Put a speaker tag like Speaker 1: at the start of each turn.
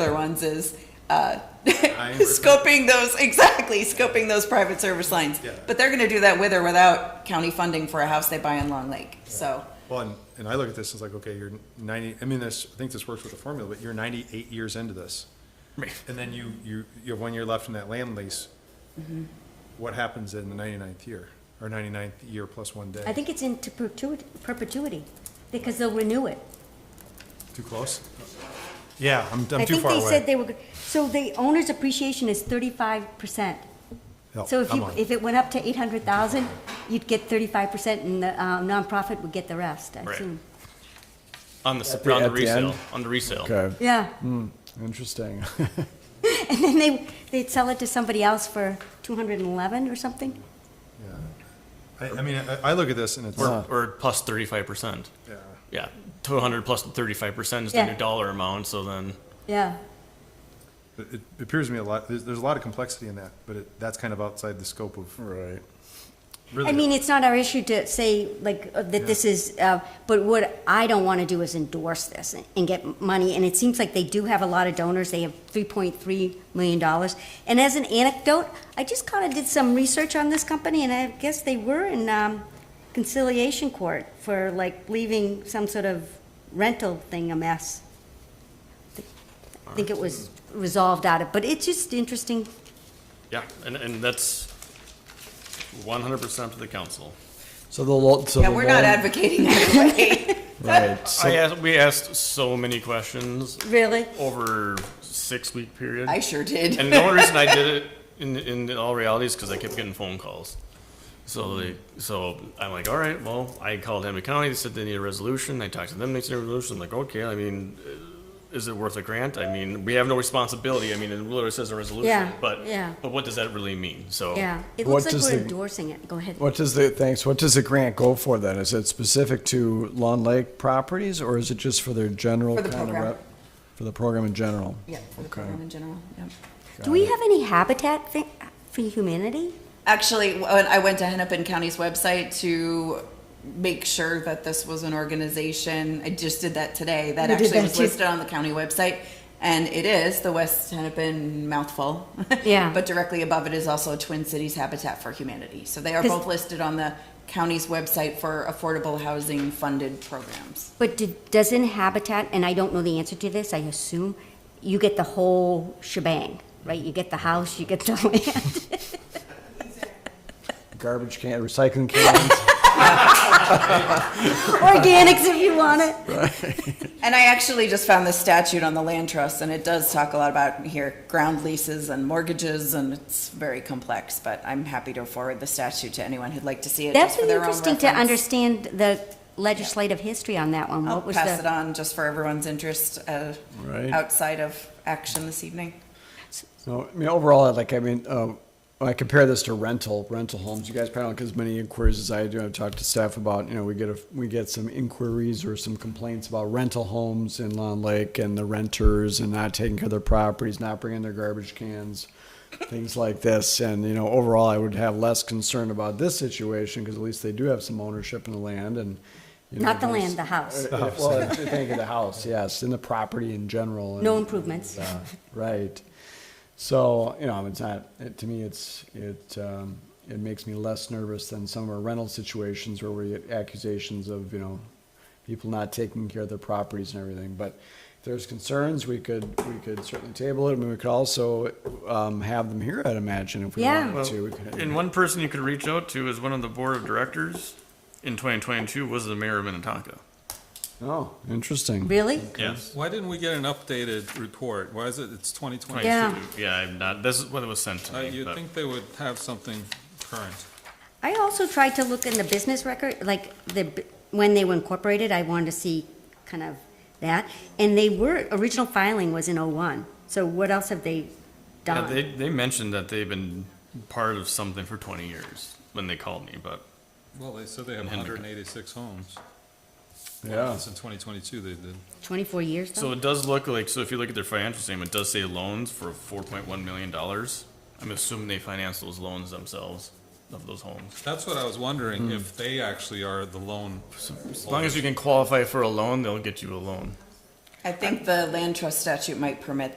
Speaker 1: other ones is uh,
Speaker 2: agree.
Speaker 1: scoping those, exactly, scoping those private service lines.
Speaker 2: Yeah.
Speaker 1: But they're gonna do that with or without county funding for a house they buy in Long Lake, so.
Speaker 2: Well, and, and I look at this, it's like, okay, you're ninety, I mean, this, I think this works with the formula, but you're ninety-eight years into this. And then you, you, you have one year left in that land lease.
Speaker 3: Mm-hmm.
Speaker 2: What happens in the ninety-ninth year, or ninety-ninth year plus one
Speaker 3: I
Speaker 2: day?
Speaker 3: think it's into perpetuity, perpetuity, because they'll renew it.
Speaker 2: Too close? Yeah, I'm,
Speaker 3: I
Speaker 2: I'm too
Speaker 3: think
Speaker 2: far
Speaker 3: they said
Speaker 2: away.
Speaker 3: they were, go- so the owner's appreciation is thirty-five percent.
Speaker 2: No,
Speaker 3: So if
Speaker 2: I'm
Speaker 3: you,
Speaker 2: Oh, on.
Speaker 3: if it went up to eight hundred thousand, you'd get thirty-five percent and the uh, nonprofit would get the rest, I
Speaker 4: Right.
Speaker 3: assume.
Speaker 4: On the, s
Speaker 5: the-
Speaker 4: on the
Speaker 5: at the
Speaker 4: resale,
Speaker 5: end?
Speaker 4: on the resale.
Speaker 5: Okay,
Speaker 3: Yeah,
Speaker 2: Hmm.
Speaker 5: interesting.
Speaker 3: and then they, they'd sell it to somebody else for two hundred and eleven or something?
Speaker 2: I, I mean, I, I look at this and it's,
Speaker 4: Or,
Speaker 2: yeah,
Speaker 4: or plus 35%. Yeah. 200 plus 35% is
Speaker 3: Yeah.
Speaker 4: the new dollar amount. So then,
Speaker 3: Yeah,
Speaker 2: it it appears to me a lot, there's, there's a lot of complexity in that, but it, that's kind of outside the scope of
Speaker 5: Right.
Speaker 2: really.
Speaker 3: I mean, it's not our issue to say, like, uh, that this is, uh, but what I don't want to do is endorse this and- and get money, and it seems like they do have a lot of donors, they have $3.3 million. And as an anecdote, I just kind of did some research on this company, and I guess they were in um, conciliation court for, like, leaving some sort of rental thing a mess. I think it was resolved out of, but it's just interesting.
Speaker 4: yeah. And, and that's 100% to the council.
Speaker 5: So the lo, so the
Speaker 1: Yeah, we're not
Speaker 5: loan-
Speaker 1: advocating either way.
Speaker 5: Right, Oh,
Speaker 4: I
Speaker 5: so,
Speaker 4: asked, we asked so many questions
Speaker 3: Really?
Speaker 4: over six week period.
Speaker 1: I sure did.
Speaker 4: and the only reason I did it in, in all reality is because I kept getting phone calls. So they, so I'm like, all right, well, I called Henry County. They said they need a resolution. I talked to them. They said a resolution. I'm like, okay. I mean, uh, is it worth a grant? I mean, we have no responsibility. I mean, it literally says a resolution.
Speaker 3: Yeah,
Speaker 4: But
Speaker 3: yeah.
Speaker 4: But what does that really mean? So
Speaker 3: Yeah, it looks
Speaker 5: What
Speaker 3: like
Speaker 5: does
Speaker 3: we're
Speaker 5: the-
Speaker 3: endorsing it, go ahead.
Speaker 5: what does the, thanks, what does the grant go for then? Is it specific to Long Lake properties, or is it just for their general
Speaker 1: For the
Speaker 5: kind of
Speaker 1: program.
Speaker 5: rep? For the program in general?
Speaker 1: Yeah, for the
Speaker 5: Okay.
Speaker 1: program in general, yeah.
Speaker 3: Do we have any habitat thing for humanity?
Speaker 1: Actually, when I went to Hennepin County's website to make sure that this was an organization, I just did that today, that
Speaker 3: You did
Speaker 1: actually
Speaker 3: that
Speaker 1: was
Speaker 3: too.
Speaker 1: listed on the county website. And it is the West Hennepin mouthful.
Speaker 3: Yeah.
Speaker 1: But directly above it is also Twin Cities Habitat for Humanity. So they are
Speaker 3: 'Cause-
Speaker 1: both listed on the county's website for affordable housing funded programs.
Speaker 3: But did, doesn't habitat, and I don't know the answer to this, I assume, you get the whole shebang, right? You get the house, you get the land.
Speaker 5: Garbage can, recycling cans?
Speaker 3: Organics if you want it.
Speaker 1: And I actually just found this statute on the land trust, and it does talk a lot about here ground leases and mortgages, and it's very complex. But I'm happy to forward the statute to anyone who'd like to see it.
Speaker 3: That's
Speaker 1: just for
Speaker 3: been
Speaker 1: their own
Speaker 3: interesting to
Speaker 1: reference.
Speaker 3: understand the legislative history on that one.
Speaker 1: I'll
Speaker 3: What was
Speaker 1: pass it
Speaker 3: the,
Speaker 1: on just for everyone's interest uh,
Speaker 5: Right.
Speaker 1: outside of action this evening.
Speaker 5: So, I mean, overall, like, I mean, uh, when I compare this to rental, rental homes, you guys probably don't get as many inquiries as I do. I've talked to staff about, you know, we get a, we get some inquiries or some complaints about rental homes in Long Lake and the renters and not taking care of their properties, not bringing their garbage cans, things like this. And, you know, overall, I would have less concern about this situation because at least they do have some ownership in the land and. you know,
Speaker 3: not the
Speaker 5: there's-
Speaker 3: land, the house.
Speaker 5: uh, Well, thank you, the house, yes, and the property in general. and-
Speaker 3: No improvements.
Speaker 5: uh, Right. So, you know, it's not, it- to me, it's, it, um, it makes me less nervous than some of our rental situations where we get accusations of, you know, people not taking care of their properties and everything. But if there's concerns, we could, we could certainly table it. I mean, we could also, um, have them here, I'd imagine, if we
Speaker 3: Yeah.
Speaker 5: wanted
Speaker 4: Well,
Speaker 5: to. We could-
Speaker 4: and one person you could reach out to is one of the board of directors in 2022 was the mayor of Minnetonka.
Speaker 5: Oh, interesting.
Speaker 3: Really?
Speaker 4: Yes.
Speaker 6: Why didn't we get an updated report? Why is it, it's 2020?
Speaker 3: Yeah.
Speaker 4: Yeah, I'm not. This is what it was sent to
Speaker 6: Uh,
Speaker 4: me.
Speaker 6: You'd
Speaker 4: but-
Speaker 6: think they would have something current.
Speaker 3: I also tried to look in the business record, like the, b- when they were incorporated, I wanted to see kind of that. And they were, original filing was in '01, so what else have they
Speaker 4: Yeah,
Speaker 3: done?
Speaker 4: they, they mentioned that they've been part of something for 20 years when they called me, but
Speaker 6: Well, they said they have
Speaker 4: And Henry.
Speaker 6: 186 homes.
Speaker 5: Yeah.
Speaker 6: Since 2022 they did.
Speaker 3: Twenty-four years
Speaker 4: so
Speaker 3: though?
Speaker 4: it does look like so if you look at their financial statement, it does say loans for 4.1 million dollars. I'm assuming they finance those loans themselves of those homes.
Speaker 6: That's what I was wondering, if they actually are the loan.
Speaker 4: Hmm. As long as you can qualify for a loan, they'll get you a loan.
Speaker 1: I think the land trust statute might permit that.